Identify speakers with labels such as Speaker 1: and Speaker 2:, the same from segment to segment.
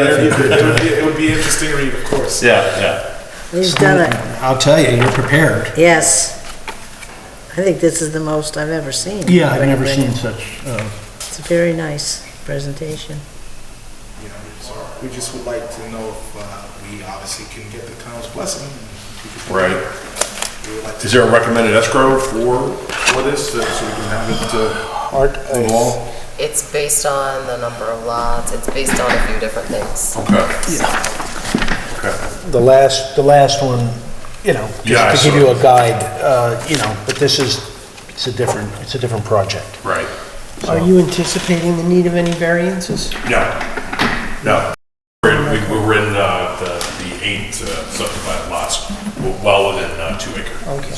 Speaker 1: It would be- it would be interesting read, of course.
Speaker 2: Yeah, yeah.
Speaker 3: He's done it,
Speaker 4: I'll tell you, you're prepared.
Speaker 3: yes. I think this is the most I've ever seen.
Speaker 4: Yeah, I've never
Speaker 3: Anybody.
Speaker 4: seen such, uh,
Speaker 3: It's a very nice presentation.
Speaker 1: You know, so We just would like to know if uh, we obviously can get the town's blessing.
Speaker 2: Right.
Speaker 1: We would like to-
Speaker 2: Is there a recommended escrow for, for this, uh, so we can have it, uh, on the wall?
Speaker 5: It's based on the number of lots, it's based on a few different things.
Speaker 2: Okay. Okay.
Speaker 4: the last, the last one, you know,
Speaker 2: Yeah, I
Speaker 4: just to
Speaker 2: saw
Speaker 4: give you a guide, uh, you know, but this is, it's a different, it's a different project.
Speaker 2: Right.
Speaker 6: Are you anticipating the need of any variances?
Speaker 2: No, no. We're in, we- we were in, uh, the, the eight uh, subdivided lots, We're well within, uh, two acre. Okay.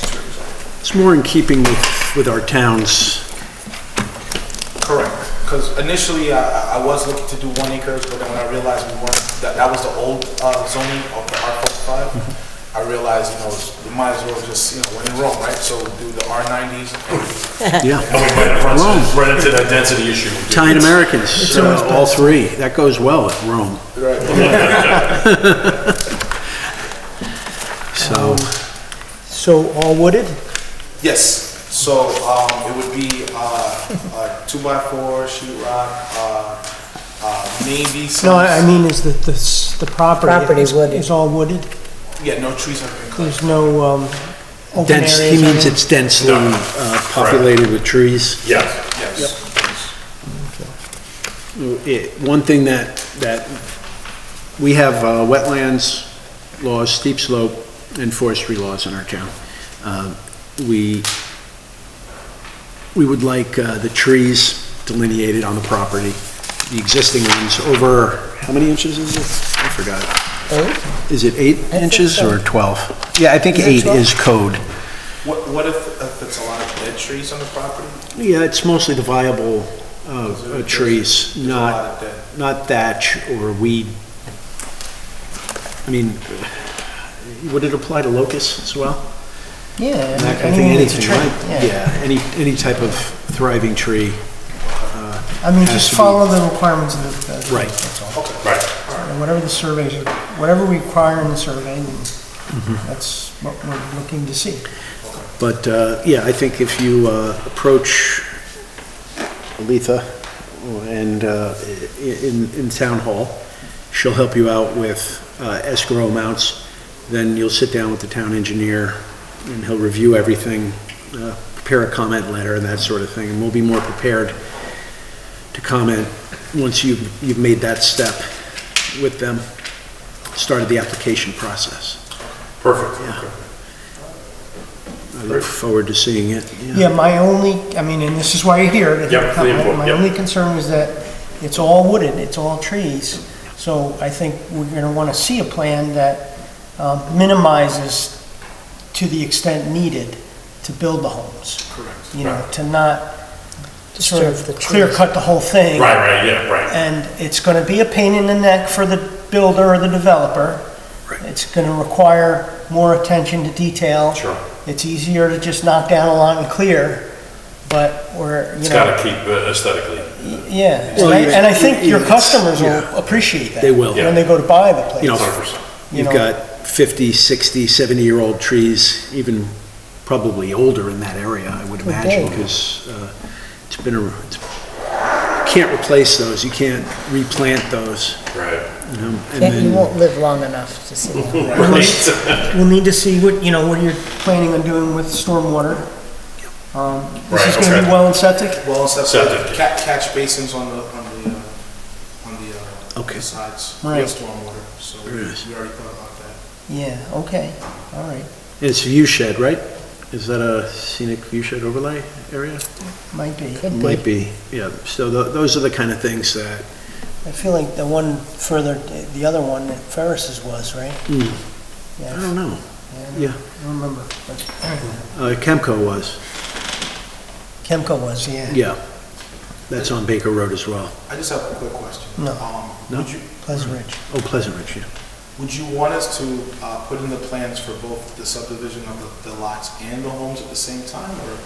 Speaker 7: It's more in keeping with, with our towns.
Speaker 1: Correct, because initially uh, I, I was looking to do one acre, but then when I realized we weren't, that, that was the old uh, zoning of the R forty-five. I realized, you know, we might as well just, you know, we're in Rome, right? So do the R nineties.
Speaker 2: And
Speaker 7: Yeah.
Speaker 2: we might have run
Speaker 7: Rome.
Speaker 2: into, run into that density issue.
Speaker 7: Italian Americans, uh, all three. That goes well at Rome. So,
Speaker 6: So all wooded?
Speaker 1: Yes, so, um, it would be, uh, a two by four, sheet rock, uh, uh, maybe some.
Speaker 6: No, I I mean, is that the, s- the property?
Speaker 3: Property
Speaker 6: is-
Speaker 3: wooded.
Speaker 6: Is all wooded?
Speaker 1: Yeah, no trees have been cut.
Speaker 6: There's no, um, open areas?
Speaker 7: dense, he means
Speaker 6: or anything?
Speaker 7: it's densely uh, populated with trees.
Speaker 2: Yes.
Speaker 1: Yes,
Speaker 7: It- One thing that, that, we have uh, wetlands laws, steep slope, and forestry laws in our town. Um, We, we would like uh, the trees delineated on the property, the existing ones, over, how many inches is it? I forgot. Is it eight inches or 12? Yeah, I think eight is code.
Speaker 1: what, what if, if it's a lot of dead trees on the property?
Speaker 7: Yeah, it's mostly the viable uh, uh, trees,
Speaker 1: lot of
Speaker 7: not,
Speaker 1: dead.
Speaker 7: not thatch or weed. I mean, would it apply to locusts as well?
Speaker 6: Yeah.
Speaker 7: I
Speaker 6: mean,
Speaker 7: think
Speaker 6: it's a
Speaker 7: anything,
Speaker 6: tree,
Speaker 7: right? Yeah, any, any type of thriving tree.
Speaker 6: I mean,
Speaker 7: Has
Speaker 6: just
Speaker 7: to be-
Speaker 6: follow the requirements of the- the.
Speaker 7: Right.
Speaker 6: that's all.
Speaker 2: Right,
Speaker 6: And Whatever the surveys, are- whatever we require in the survey, then
Speaker 7: Mm-hmm.
Speaker 6: that's what we're looking to see.
Speaker 7: But, uh, yeah, I think if you uh, approach Letha and, uh, i- in, in Town Hall, she'll help you out with uh, escrow amounts, then you'll sit down with the town engineer, and he'll review everything, uh, prepare a comment letter and that sort of thing, and we'll be more prepared to comment once you've, you've made that step with them, started the application process.
Speaker 2: perfect.
Speaker 7: I look forward to seeing it, yeah.
Speaker 6: Yeah, my only, I mean, and this is why you're here, to
Speaker 2: Yep, the
Speaker 6: have a comment.
Speaker 2: input,
Speaker 6: My
Speaker 2: yep.
Speaker 6: only concern was that it's all wooded, it's all trees. So I think we're gonna wanna see a plan that um, minimizes to the extent needed to build the homes. Correct. You know, to not sort of
Speaker 3: Disturb the
Speaker 6: clear cut the whole thing.
Speaker 2: Right, right, yeah, right.
Speaker 6: And it's gonna be a pain in the neck for the builder or the developer. It's gonna require more attention to detail.
Speaker 2: Sure.
Speaker 6: It's easier to just knock down a lot and clear, but we're, you
Speaker 2: It's
Speaker 6: know,
Speaker 2: gotta keep uh, aesthetically.
Speaker 6: yeah.
Speaker 7: Well,
Speaker 6: And I-
Speaker 7: you-
Speaker 6: and I think
Speaker 7: you-
Speaker 6: your
Speaker 7: you-
Speaker 6: customers
Speaker 7: yeah.
Speaker 6: will appreciate that.
Speaker 7: They will.
Speaker 2: Yeah.
Speaker 6: When they go to buy the place.
Speaker 7: You know,
Speaker 2: 100%.
Speaker 6: you
Speaker 7: You've
Speaker 6: know.
Speaker 7: got 50, 60, 70-year-old trees, even probably older in that area, I would imagine, because it's been a, it's- can't replace those, you can't replant those,
Speaker 2: Right.
Speaker 7: you know, and
Speaker 3: Can't- You
Speaker 7: then,
Speaker 3: won't live long enough to see that.
Speaker 6: We'll need- We'll need to see what, you know, what you're planning on doing with stormwater. Um, This is
Speaker 2: Right,
Speaker 6: gonna
Speaker 2: okay.
Speaker 6: be well and septic?
Speaker 1: Well, except
Speaker 2: Septic.
Speaker 1: catch, catch basins on the, on the, uh, on the, uh,
Speaker 7: Okay.
Speaker 1: sides,
Speaker 6: Right.
Speaker 1: stormwater, so we we
Speaker 7: Very nice.
Speaker 1: already thought about that.
Speaker 6: Yeah, okay, all right.
Speaker 7: it's a view shed, right? Is that a scenic view shed overlay area?
Speaker 6: Might be.
Speaker 7: Might be, yeah, so tho- those are the kind of things that,
Speaker 6: I feel like the one further, the other one that Ferris's was, right?
Speaker 7: I
Speaker 3: Hmm.
Speaker 6: Yeah,
Speaker 7: don't know, yeah,
Speaker 6: I don't remember, but
Speaker 7: Uh, Kemco was,
Speaker 6: Kemco was, yeah.
Speaker 7: yeah, that's on Baker Road as well,
Speaker 1: I just have a quick question.
Speaker 6: No.
Speaker 1: Um,
Speaker 7: No?
Speaker 1: Would you,
Speaker 6: Pleasant Ridge.
Speaker 7: oh, Pleasant Ridge, yeah.
Speaker 1: would you want us to, uh, put in the plans for both the subdivision of the, the lots and the homes at the same time, or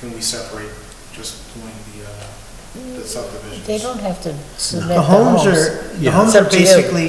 Speaker 1: can we separate just doing the, uh,
Speaker 8: the subdivisions.
Speaker 6: They don't have to submit
Speaker 3: The homes are, the
Speaker 1: Yeah.
Speaker 3: homes
Speaker 6: It's
Speaker 3: are
Speaker 6: up to you.
Speaker 3: basically